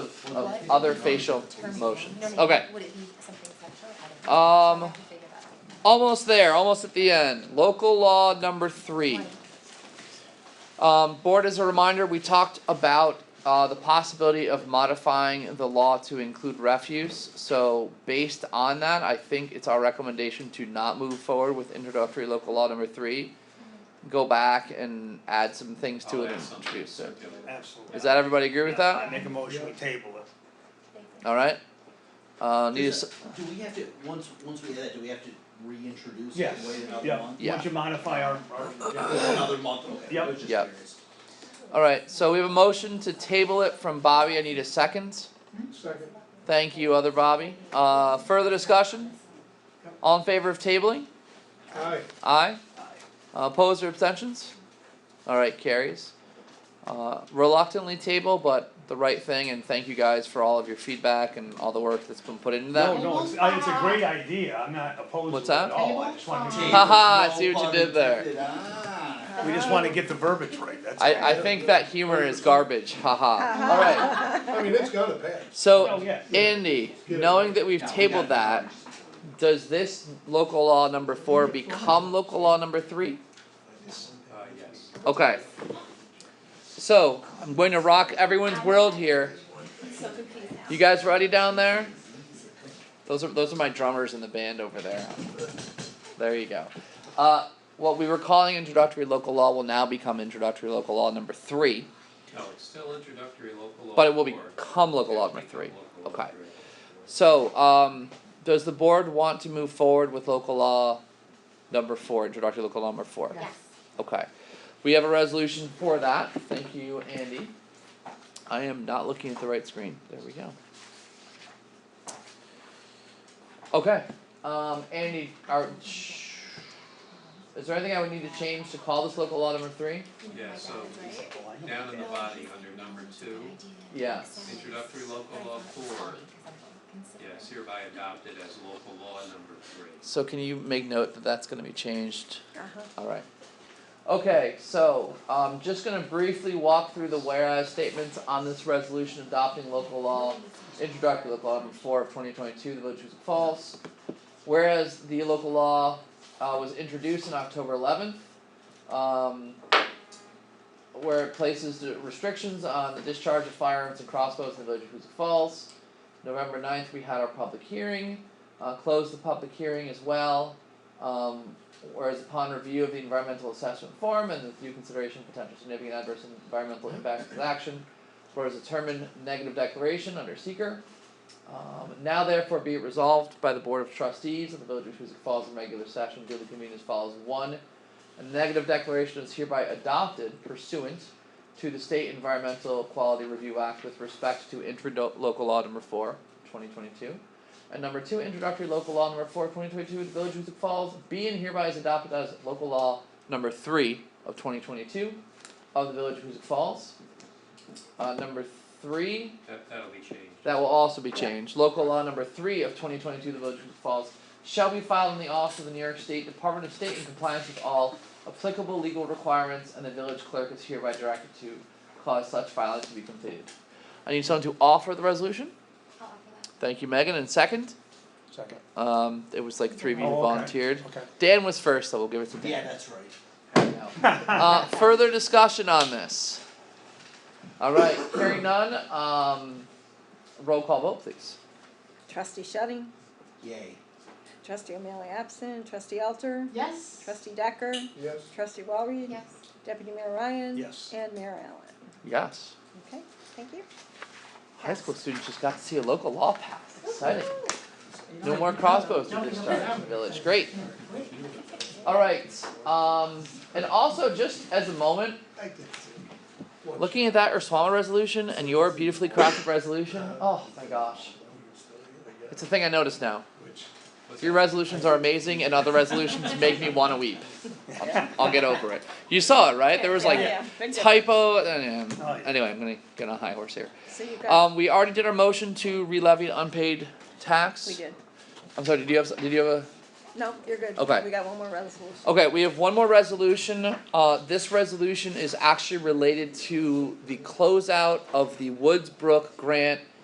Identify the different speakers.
Speaker 1: other facial motions. Okay,
Speaker 2: Would it be something sexual? I don't know. We'll have
Speaker 1: Um,
Speaker 2: to figure that out.
Speaker 1: almost there, almost at the end. Local law number three. Um, board, as a reminder, we talked about uh, the possibility of modifying the law to include refuse. So, based on that, I think it's our recommendation to not move forward with introductory local law number three. Go back and add some things to
Speaker 3: I'll
Speaker 1: it
Speaker 4: Oh,
Speaker 3: add
Speaker 1: and
Speaker 3: something
Speaker 1: introduce it.
Speaker 3: to it.
Speaker 5: Absolutely.
Speaker 1: Does that everybody agree with
Speaker 5: I
Speaker 1: that?
Speaker 5: make a motion, we table it.
Speaker 1: All right. Uh, need a
Speaker 4: Is
Speaker 1: s-
Speaker 4: that- Do we have to, once, once we have that, do we have to reintroduce it,
Speaker 5: Yes,
Speaker 4: wait another
Speaker 5: yeah,
Speaker 4: month?
Speaker 1: Yeah.
Speaker 5: once you modify our, our,
Speaker 4: Another month, okay, I
Speaker 5: Yep.
Speaker 4: was just
Speaker 1: Yep.
Speaker 4: curious.
Speaker 1: all right. So we have a motion to table it from Bobby. I need a second.
Speaker 6: Second.
Speaker 1: Thank you, other Bobby. Uh, further discussion? All in favor of tabling?
Speaker 6: Aye.
Speaker 1: Aye. Uh, opposed or abstentions? Alright, carries. Uh, reluctantly table, but the right thing, and thank you guys for all of your feedback and all the work that's been put into
Speaker 5: no,
Speaker 1: that.
Speaker 5: no, it's, I- it's a great idea, I'm not opposed
Speaker 1: What's
Speaker 5: to it at
Speaker 1: that?
Speaker 5: all, I just wanna make sure-
Speaker 1: Ha ha, I see
Speaker 4: No
Speaker 1: what you
Speaker 4: pun
Speaker 1: did there.
Speaker 4: intended. Ah.
Speaker 5: we just wanna get the verbiage right, that's all.
Speaker 1: I, I think that humor is garbage, haha. Alright,
Speaker 6: I mean, it's gotta pass.
Speaker 5: Oh,
Speaker 1: so,
Speaker 5: yeah.
Speaker 1: Andy, knowing that we've
Speaker 4: Now, we
Speaker 1: tabled
Speaker 4: got it.
Speaker 1: that, does this local law number four become local law number three?
Speaker 3: Uh, yes.
Speaker 1: Okay. So, I'm going to rock everyone's world here.
Speaker 2: So confused now.
Speaker 1: You guys ready down there? Those are those are my drummers in the band over there. There you go. Uh, what we were calling introductory local law will now become introductory local law number three,
Speaker 3: No, it's still introductory local law.
Speaker 1: but it will
Speaker 3: four.
Speaker 1: become local law
Speaker 3: It'll
Speaker 1: number
Speaker 3: become
Speaker 1: three.
Speaker 3: local law
Speaker 1: Okay.
Speaker 3: three.
Speaker 1: So, um, does the board want to move forward with local law number four, introductory local law number four?
Speaker 2: Yes.
Speaker 1: Okay. We have a resolution for that. Thank you, Andy. I am not looking at the right screen. There we go. Okay, um, Andy, are, sh- is there anything I would need to change to call this local law number three?
Speaker 3: Yeah, so down in the body under number two,
Speaker 1: Yeah.
Speaker 3: Introductory local law four. yes, hereby adopted as local law number three.
Speaker 1: So can you make note that that's gonna be changed?
Speaker 2: Uh-huh.
Speaker 1: Alright. Okay, so, um, just gonna briefly walk through the whereas statements on this resolution adopting local law introductory local law
Speaker 2: Oh,
Speaker 1: number four of twenty twenty two, the village of Huzik Falls. Whereas the local law uh was introduced on October eleventh, um where it places the restrictions on the discharge of firearms and crossbows in the village of Huzik Falls. November 9th, we had our public hearing, uh closed the public hearing as well. Um whereas upon review of the environmental assessment form and with due consideration of potential significant adverse environmental impacts of this action, whereas determined negative declaration under seeker. Um, now therefore be it resolved by the Board of Trustees of the Village of Huzik Falls in regular session duly convened as follows. One, a negative declaration is hereby adopted pursuant to the State Environmental Quality Review Act with respect to introdu- local law number four, 2022. And number two, introductory local law number four, 2022 of the Village of Huzik Falls be and hereby is adopted as local law number three of 2022 of the Village of Huzik Falls. Uh, number three,
Speaker 3: That, that'll be changed.
Speaker 1: that will also be changed. Local law number three of twenty twenty two, the Village of Huzik Falls, shall be filed in the office of the New York State Department of State in compliance with all applicable legal requirements, and the village clerk is hereby directed to cause such filing to be completed. I need someone to offer the resolution.
Speaker 2: I'll offer
Speaker 1: Thank you, Megan, and second.
Speaker 5: Second.
Speaker 1: Um, it was like three of you
Speaker 5: Oh, okay.
Speaker 1: volunteered.
Speaker 5: Okay.
Speaker 1: Dan was first, so we'll give it to Dan.
Speaker 4: Yeah, that's right.
Speaker 1: Uh, further discussion on this? Alright, hearing none, um, roll call vote please.
Speaker 7: Trustee Shetting,
Speaker 4: Yay.
Speaker 7: trustee O'Malley absent, trustee Alter,
Speaker 2: that. Yes.
Speaker 7: trustee Decker,
Speaker 6: Yes.
Speaker 7: trustee Walry,
Speaker 2: Yes.
Speaker 7: deputy mayor Ryan,
Speaker 5: Yes.
Speaker 7: and mayor Allen.
Speaker 1: Yes.
Speaker 7: Okay, thank you.
Speaker 1: High school students just got to see a local law pass. Exciting. No more crossbows to discharge in the village. Great. Alright, um, and also just as a moment, looking at that Urswama resolution and your beautifully crafted resolution, oh my gosh. It's a thing I notice now.
Speaker 6: Which,
Speaker 3: What's
Speaker 1: Your
Speaker 3: that?
Speaker 1: resolutions are amazing and other resolutions make me wanna weep. I'll, I'll get over it. You saw it, right? There was like typo, and,
Speaker 5: Oh, yeah.
Speaker 1: uh, anyway, I'm gonna get on a high horse here.
Speaker 7: So you got,
Speaker 1: Um, we already did our motion to re-levy unpaid tax.
Speaker 7: we did.
Speaker 1: I'm sorry, did you have, s- did you have
Speaker 7: No, you're good.
Speaker 1: Okay.
Speaker 7: We got one more resolution.
Speaker 1: a, okay, we have one more resolution. Uh, this resolution is actually related to the closeout of the Woods Brook grant